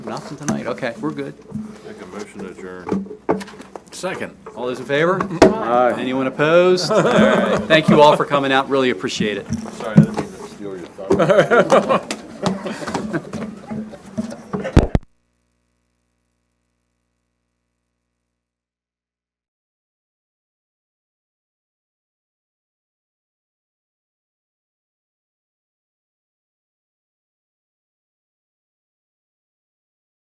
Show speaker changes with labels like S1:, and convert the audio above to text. S1: nothing tonight. Okay, we're good.
S2: Make a motion to adjourn.
S3: Second.
S1: All those in favor? Anyone opposed? All right. Thank you all for coming out. Really appreciate it.
S2: Sorry, I didn't mean to steal your thunder.